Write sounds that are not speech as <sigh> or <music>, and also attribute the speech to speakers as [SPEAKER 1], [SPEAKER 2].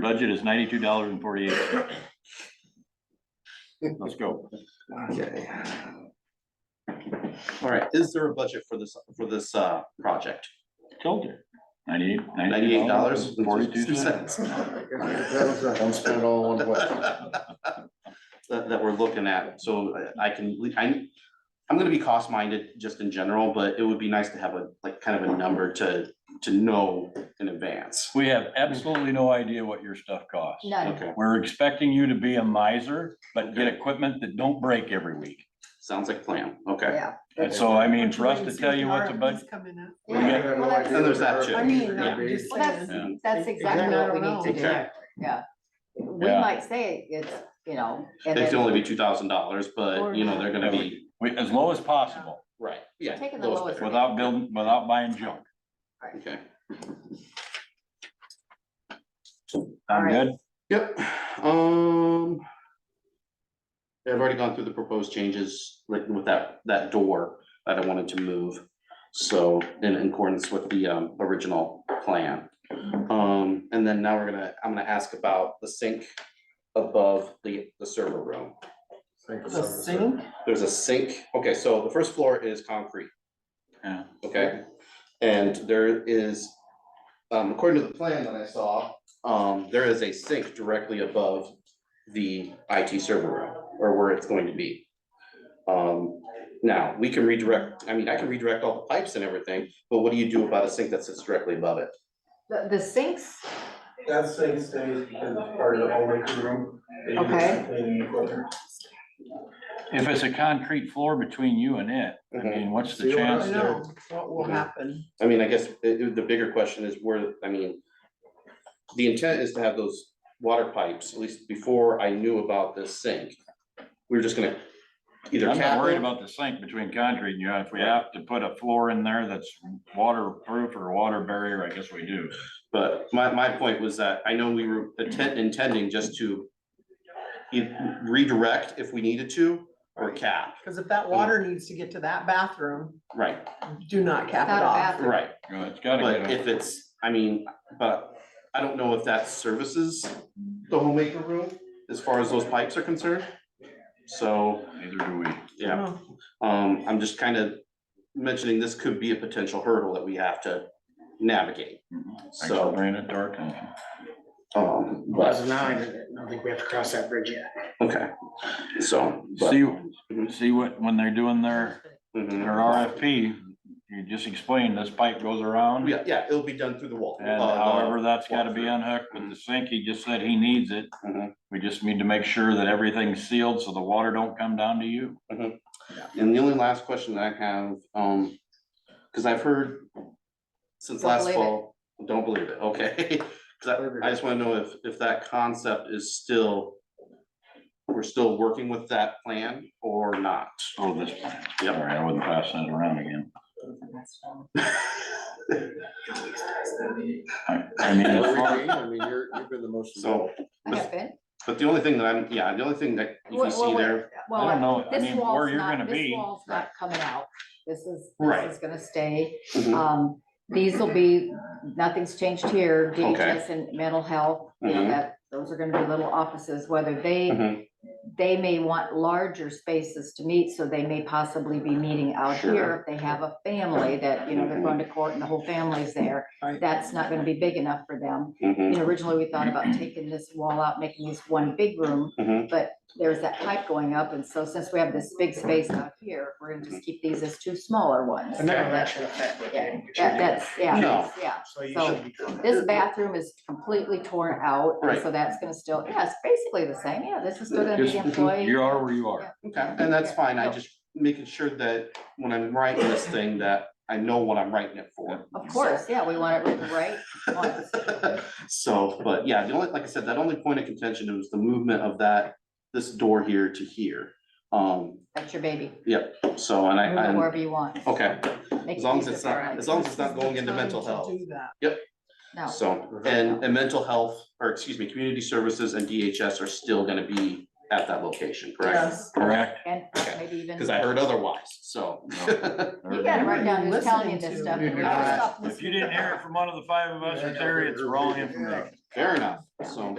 [SPEAKER 1] Budget is ninety-two dollars and forty-eight. Let's go.
[SPEAKER 2] Okay. All right, is there a budget for this, for this, uh, project?
[SPEAKER 1] Told you. Ninety-eight.
[SPEAKER 2] Ninety-eight dollars?
[SPEAKER 1] Forty-two cents.
[SPEAKER 3] Don't spend it all in one way.
[SPEAKER 2] That, <laughs> that we're looking at, so I- I can, I, I'm gonna be cost minded just in general, but it would be nice to have a, like, kind of a number to, to know in advance.
[SPEAKER 1] We have absolutely no idea what your stuff costs.
[SPEAKER 4] None.
[SPEAKER 2] Okay,
[SPEAKER 1] We're expecting you to be a miser, but get equipment that don't break every week.
[SPEAKER 2] sounds like plan, okay.
[SPEAKER 4] Yeah.
[SPEAKER 1] And so, I mean, for us to tell you what the budget,
[SPEAKER 4] Yeah.
[SPEAKER 1] We got-
[SPEAKER 4] Well, that's-
[SPEAKER 2] And there's that too.
[SPEAKER 5] I mean,
[SPEAKER 2] Yeah.
[SPEAKER 5] I'm just
[SPEAKER 4] Well, that's,
[SPEAKER 5] saying.
[SPEAKER 2] Yeah.
[SPEAKER 4] that's exactly what we need to
[SPEAKER 2] Okay.
[SPEAKER 4] do. Yeah. We
[SPEAKER 1] Yeah.
[SPEAKER 4] might say it's, you know. and
[SPEAKER 2] It
[SPEAKER 4] then
[SPEAKER 2] could only be two thousand dollars, but you know, they're gonna be,
[SPEAKER 1] we- as low as possible,
[SPEAKER 2] right, yeah.
[SPEAKER 4] Taking the
[SPEAKER 2] those
[SPEAKER 4] lowest
[SPEAKER 2] there.
[SPEAKER 4] one.
[SPEAKER 1] without building, without buying junk.
[SPEAKER 2] Okay.
[SPEAKER 1] I'm
[SPEAKER 4] Alright.
[SPEAKER 1] good.
[SPEAKER 2] Yep, um. I've already gone through the proposed changes, like with that, that door that I wanted to move. So in in accordance with the um original plan. Um, and then now we're gonna, I'm gonna ask about the sink above the the server room.
[SPEAKER 3] Think of
[SPEAKER 5] The
[SPEAKER 3] something.
[SPEAKER 5] sink,
[SPEAKER 2] There's a sink, okay, so the first floor is concrete.
[SPEAKER 1] Yeah.
[SPEAKER 2] Okay, and there is, um, according to the plan that I saw, um, there is a sink directly above the IT server room, or where it's going to be. Um, now, we can redirect, I mean, I can redirect all the pipes and everything, but what do you do about a sink that sits directly above it?
[SPEAKER 4] The, the sinks,
[SPEAKER 6] That thing stays because it's part of the whole making room. They use it
[SPEAKER 4] Okay.
[SPEAKER 6] for cleaning equipment.
[SPEAKER 1] If it's a concrete floor between you and it, I mean, what's the
[SPEAKER 3] See what I
[SPEAKER 1] chance
[SPEAKER 5] I
[SPEAKER 1] that
[SPEAKER 5] know, what will happen?
[SPEAKER 2] I mean, I guess it- it- the bigger question is where, I mean, the intent is to have those water pipes, at least before I knew about this sink. We were just gonna either cap
[SPEAKER 1] I'm not worried
[SPEAKER 2] them-
[SPEAKER 1] about the sink between concrete and you. If we have to put a floor in there that's waterproof or water barrier, I guess we do.
[SPEAKER 2] But my, my point was that I know we were intent, intending just to e- redirect if we needed to, or cap,
[SPEAKER 5] Cause if that water needs to get to that bathroom,
[SPEAKER 2] right,
[SPEAKER 5] do not cap
[SPEAKER 4] Not
[SPEAKER 5] it
[SPEAKER 4] a
[SPEAKER 5] off.
[SPEAKER 4] bathroom.
[SPEAKER 2] right,
[SPEAKER 1] You know, it's gotta
[SPEAKER 2] but
[SPEAKER 1] get,
[SPEAKER 2] if it's, I mean, but I don't know if that services the homemaker room as far as those pipes are concerned. So,
[SPEAKER 1] a- neither do we.
[SPEAKER 2] yeah,
[SPEAKER 5] Oh,
[SPEAKER 2] um, I'm just kind of mentioning this could be a potential hurdle that we have to navigate,
[SPEAKER 1] Thanks for
[SPEAKER 2] so,
[SPEAKER 1] bringing it to our attention.
[SPEAKER 2] um,
[SPEAKER 3] As
[SPEAKER 2] but,
[SPEAKER 3] of now, I don't think we have to cross that bridge yet.
[SPEAKER 2] okay, so. but-
[SPEAKER 1] See, see what, when they're doing their,
[SPEAKER 2] Mhm.
[SPEAKER 1] their RFP, you just explain this pipe goes around.
[SPEAKER 2] Yeah, yeah, it'll be done through the wall.
[SPEAKER 1] And
[SPEAKER 2] uh, Mm-hmm.
[SPEAKER 1] however, that's gotta be unhooked with the sink. He just said he needs it.
[SPEAKER 2] Mhm.
[SPEAKER 1] We just need to make sure that everything's sealed so the water don't come down to you.
[SPEAKER 2] And the only last question that I have, um, cause I've heard since
[SPEAKER 4] Don't
[SPEAKER 2] last
[SPEAKER 4] believe it.
[SPEAKER 2] fall, don't believe it, okay? <laughs> 'Cause I, I just wanna know if, if that concept is still, we're still working with that plan or not.
[SPEAKER 1] Oh, this, all
[SPEAKER 2] Yep.
[SPEAKER 1] right, I wouldn't pass that around again. I, I mean,
[SPEAKER 2] <laughs>
[SPEAKER 1] as far-
[SPEAKER 3] I mean, you're, you've been the most.
[SPEAKER 2] So,
[SPEAKER 4] I have been.
[SPEAKER 2] but the only thing that I'm, yeah, the only thing that you can
[SPEAKER 4] Well,
[SPEAKER 2] see
[SPEAKER 4] well,
[SPEAKER 2] there,
[SPEAKER 4] well,
[SPEAKER 1] I don't know, I
[SPEAKER 4] this
[SPEAKER 1] mean,
[SPEAKER 4] wall's
[SPEAKER 1] where you're
[SPEAKER 4] not-
[SPEAKER 1] gonna
[SPEAKER 4] this
[SPEAKER 1] be.
[SPEAKER 4] Wall's not coming out. This is,
[SPEAKER 2] Right.
[SPEAKER 4] this is gonna stay.
[SPEAKER 2] Mhm.
[SPEAKER 4] Um, these will be, nothing's changed here,
[SPEAKER 2] Okay.
[SPEAKER 4] DHS and mental health, you know,
[SPEAKER 2] Mhm.
[SPEAKER 4] that, those are gonna be little offices, whether they,
[SPEAKER 2] Mhm,
[SPEAKER 4] they may want larger spaces to meet, so they may possibly be meeting out
[SPEAKER 2] Sure.
[SPEAKER 4] here. If they have a family that, you know, they're going to court and the whole family's there,
[SPEAKER 5] Right.
[SPEAKER 4] that's not gonna be big enough for them. You
[SPEAKER 2] mhm,
[SPEAKER 4] know, originally, we thought about taking this wall out, making this one big room,
[SPEAKER 2] mhm,
[SPEAKER 4] but there's that pipe going up, and so since we have this big space out here, we're gonna
[SPEAKER 2] Mm-hmm.
[SPEAKER 4] just keep these as two smaller ones.
[SPEAKER 3] And that, that should affect what
[SPEAKER 4] Yeah,
[SPEAKER 3] you.
[SPEAKER 4] that- that's, yeah,
[SPEAKER 2] No.
[SPEAKER 4] that's- yeah.
[SPEAKER 3] So you
[SPEAKER 4] so
[SPEAKER 3] should be. good.
[SPEAKER 4] This bathroom is completely torn out, and
[SPEAKER 2] Right.
[SPEAKER 4] so that's gonna still, yeah, it's basically the same, yeah, this is still gonna
[SPEAKER 1] Just-
[SPEAKER 4] be employee.
[SPEAKER 1] you are where you are.
[SPEAKER 2] okay, and that's
[SPEAKER 4] Yeah.
[SPEAKER 2] fine, I
[SPEAKER 4] No.
[SPEAKER 2] just making sure that when I'm writing this thing, that I know what I'm writing it for.
[SPEAKER 4] Of course, yeah, we want it written right once.
[SPEAKER 2] <laughs> So, but yeah, the only, like I said, that only point of contention was the movement of that, this door here to here. Um,
[SPEAKER 4] That's your baby.
[SPEAKER 2] so, and I,
[SPEAKER 4] Move it
[SPEAKER 2] I'm,
[SPEAKER 4] wherever you want.
[SPEAKER 2] okay,
[SPEAKER 4] Make
[SPEAKER 2] as long as
[SPEAKER 4] use
[SPEAKER 2] it's
[SPEAKER 4] of our
[SPEAKER 2] not,
[SPEAKER 4] rights.
[SPEAKER 2] as long as it's not going into
[SPEAKER 5] Time
[SPEAKER 2] mental
[SPEAKER 5] to
[SPEAKER 2] health.
[SPEAKER 5] Do that.
[SPEAKER 4] No,
[SPEAKER 2] So, and, and mental health, or excuse me, community services and DHS are still gonna be at that location, correct?
[SPEAKER 5] Yes.
[SPEAKER 1] Correct.
[SPEAKER 4] <laughs> and
[SPEAKER 2] Okay.
[SPEAKER 4] maybe even,
[SPEAKER 2] Cause I heard otherwise, so.
[SPEAKER 4] you gotta write down who's telling you
[SPEAKER 5] Listening
[SPEAKER 4] this
[SPEAKER 5] to-
[SPEAKER 4] stuff.
[SPEAKER 3] You
[SPEAKER 4] and
[SPEAKER 3] hear
[SPEAKER 4] never
[SPEAKER 3] that?
[SPEAKER 4] stop
[SPEAKER 1] If you
[SPEAKER 4] listening.
[SPEAKER 1] didn't hear it from one of the five of us, it's there, it's wrong information.
[SPEAKER 2] Fair enough, so.